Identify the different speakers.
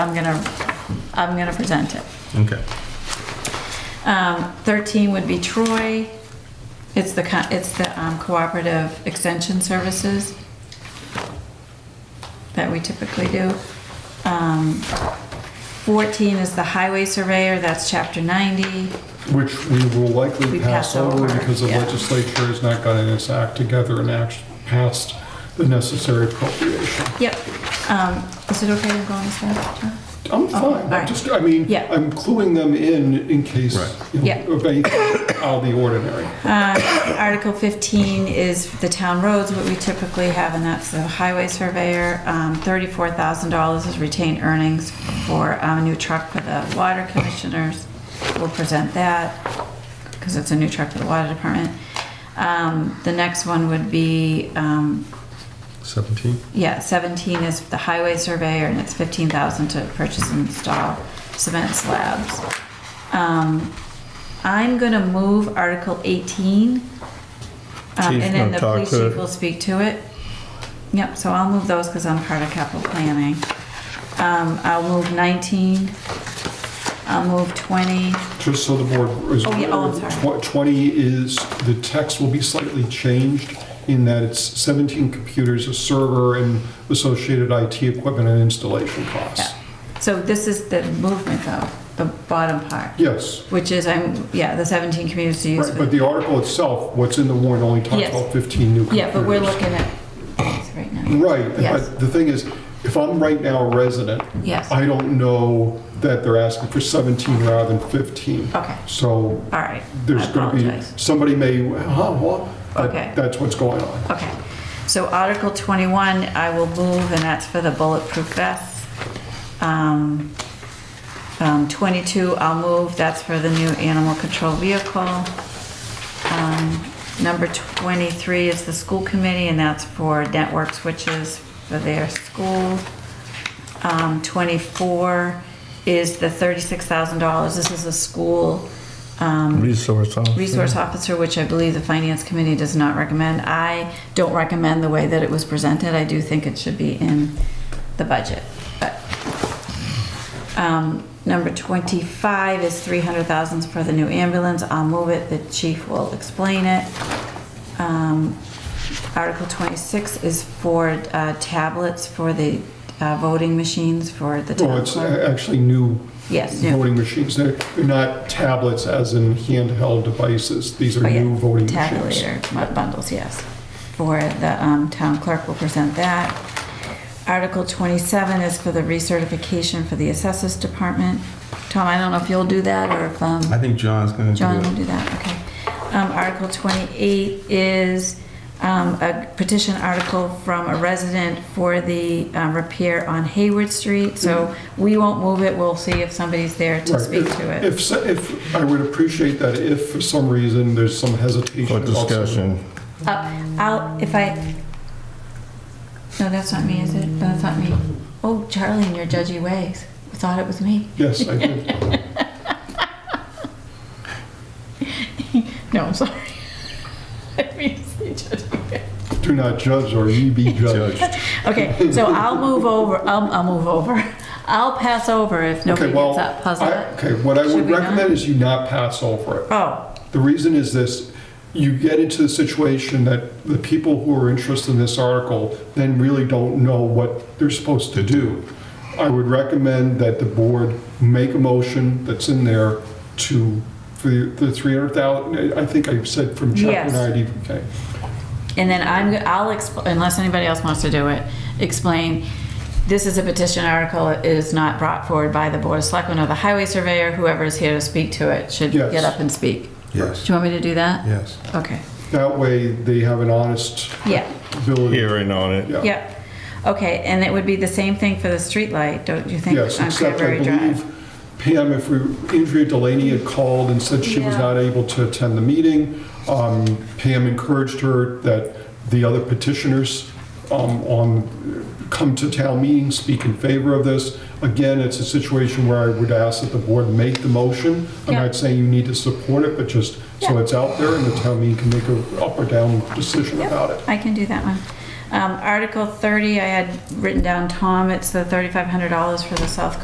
Speaker 1: I'm gonna, I'm gonna present it.
Speaker 2: Okay.
Speaker 1: Um, 13 would be Troy. It's the, co- it's the um, cooperative extension services that we typically do. Um, 14 is the highway surveyor, that's chapter 90.
Speaker 3: Which we will likely
Speaker 1: We
Speaker 3: pass
Speaker 1: pass over,
Speaker 3: over because the
Speaker 1: yeah.
Speaker 3: legislature has not gotten its act together and act passed the necessary appropriation.
Speaker 1: Yep. Um, Is it okay to go on this one, John?
Speaker 3: I'm
Speaker 1: Oh, all
Speaker 3: fine, I'm
Speaker 1: right.
Speaker 3: just, I mean,
Speaker 1: Yeah.
Speaker 3: I'm cluing them in in case
Speaker 2: Right.
Speaker 3: you know,
Speaker 1: Yeah.
Speaker 3: of anything out of the ordinary.
Speaker 1: Uh, Article 15 is the town roads, what we typically have, and that's the highway surveyor. Um, $34,000 is retained earnings for um, a new truck for the water commissioners. We'll present that, because it's a new truck for the water department. Um, The next one would be um,
Speaker 2: 17?
Speaker 1: yeah, 17 is the highway surveyor, and it's 15,000 to purchase and install cement slabs. Um, I'm gonna move Article 18. um,
Speaker 2: Chief's
Speaker 1: And then
Speaker 2: gonna
Speaker 1: the
Speaker 2: talk
Speaker 1: police
Speaker 2: to
Speaker 1: chief
Speaker 2: it.
Speaker 1: will speak to it. Yep, so I'll move those because I'm part of capital planning. Um, I'll move 19. I'll move 20.
Speaker 3: Just so the board is
Speaker 1: Oh, yeah, oh, I'm
Speaker 3: aware,
Speaker 1: sorry.
Speaker 3: tw- 20 is, the text will be slightly changed in that it's 17 computers, a server, and associated IT equipment and installation costs.
Speaker 1: Yeah. So this is the movement though, the bottom part,
Speaker 3: Yes,
Speaker 1: which is I'm, yeah, the 17 communities to use.
Speaker 3: right,
Speaker 1: for-
Speaker 3: but the article itself, what's in the warrant only talks
Speaker 1: Yes.
Speaker 3: about 15 new computers.
Speaker 1: Yeah, but we're looking at these right now.
Speaker 3: Right,
Speaker 1: Yes.
Speaker 3: but the thing is, if I'm right now a resident,
Speaker 1: Yes.
Speaker 3: I don't know that they're asking for 17 rather than 15.
Speaker 1: Okay,
Speaker 3: So
Speaker 1: all right.
Speaker 3: there's
Speaker 1: I
Speaker 3: going to be,
Speaker 1: apologize.
Speaker 3: somebody may, huh, what? But
Speaker 1: Okay.
Speaker 3: That's what's going on.
Speaker 1: Okay, so Article 21, I will move, and that's for the bulletproof vests. Um, um, 22, I'll move, that's for the new animal control vehicle. Um, Number 23 is the school committee, and that's for network switches for their school. Um, 24 is the $36,000, this is a school um,
Speaker 2: Resource officer?
Speaker 1: resource officer, which I believe the finance committee does not recommend. I don't recommend the way that it was presented. I do think it should be in the budget, but. Um, number twenty-five is three hundred thousands for the new ambulance. I'll move it. The chief will explain it. Um, Article twenty-six is for, uh, tablets for the, uh, voting machines for the
Speaker 3: Well,
Speaker 1: town
Speaker 3: it's uh,
Speaker 1: clerk.
Speaker 3: a- actually new
Speaker 1: Yes, new
Speaker 3: voting machines. They're they're not tablets as in handheld devices. These are
Speaker 1: Oh, yeah.
Speaker 3: new voting machines.
Speaker 1: tabulator bu- bundles, yes. For the um, town clerk will present that. Article 27 is for the recertification for the assessors department. Tom, I don't know if you'll do that or if um,
Speaker 2: I think John's gonna
Speaker 1: John will
Speaker 2: do it.
Speaker 1: do that, okay. Um, Article 28 is um, a petition article from a resident for the um, repair on Hayward Street. So
Speaker 2: Mm-hmm.
Speaker 1: we won't move it, we'll see if somebody's there to
Speaker 3: Right.
Speaker 1: speak
Speaker 3: If-
Speaker 1: to it.
Speaker 3: If, so- if, I would appreciate that if for some reason there's some hesitation.
Speaker 2: For
Speaker 3: about some-
Speaker 2: discussion.
Speaker 1: Uh, I'll, if I, no, that's not me, is it? No, that's not me. Oh, Charlie, in your judgy ways, thought it was me.
Speaker 3: Yes, I did.
Speaker 1: No, I'm sorry. I mean, it's the judgy ways.
Speaker 3: Do not judge or ye be judged.
Speaker 1: Okay, so I'll move over, um, I'll, I'll move over. I'll pass over if
Speaker 3: Okay,
Speaker 1: nobody
Speaker 3: well,
Speaker 1: gets that puzzle.
Speaker 3: I- Okay, what I
Speaker 1: Should
Speaker 3: would
Speaker 1: we not?
Speaker 3: recommend is you not pass over it.
Speaker 1: Oh,
Speaker 3: The reason is this, you get into the situation that the people who are interested in this article then really don't know what they're supposed to do. I would recommend that the board make a motion that's in there to, for the the 300,000, I think I said from chapter
Speaker 1: Yes.
Speaker 3: 90, okay.
Speaker 1: and then I'm, I'll expl, unless anybody else wants to do it, explain, this is a petition article, it is not brought forward by the Board of Selectmen or the Highway Surveyor, whoever is here to speak to it should
Speaker 3: Yes.
Speaker 1: get up and speak. Do
Speaker 2: Yes,
Speaker 1: you want me to do that?
Speaker 2: yes.
Speaker 1: Okay.
Speaker 3: That way, they have an honest
Speaker 1: Yeah,
Speaker 3: ability.
Speaker 2: Hearing on it.
Speaker 3: Yeah.
Speaker 1: yeah. Okay, and it would be the same thing for the streetlight, don't you think?
Speaker 3: Yes,
Speaker 1: on
Speaker 3: except I
Speaker 1: Cranberry Drive?
Speaker 3: believe Pam, if we, Andrea Delaney had called and said she was
Speaker 1: Yeah.
Speaker 3: not able to attend the meeting. Um, Pam encouraged her that the other petitioners um, on, come to town meeting, speak in favor of this. Again, it's a situation where I would ask that the board make the motion. I'm
Speaker 1: Yeah.
Speaker 3: not saying you need to support it, but just so
Speaker 1: Yeah.
Speaker 3: it's out there and the town meeting can make a up or down decision
Speaker 1: Yep.
Speaker 3: about it.
Speaker 1: I can do that one. Um, Article 30, I had written down Tom, it's the $3,500 for the South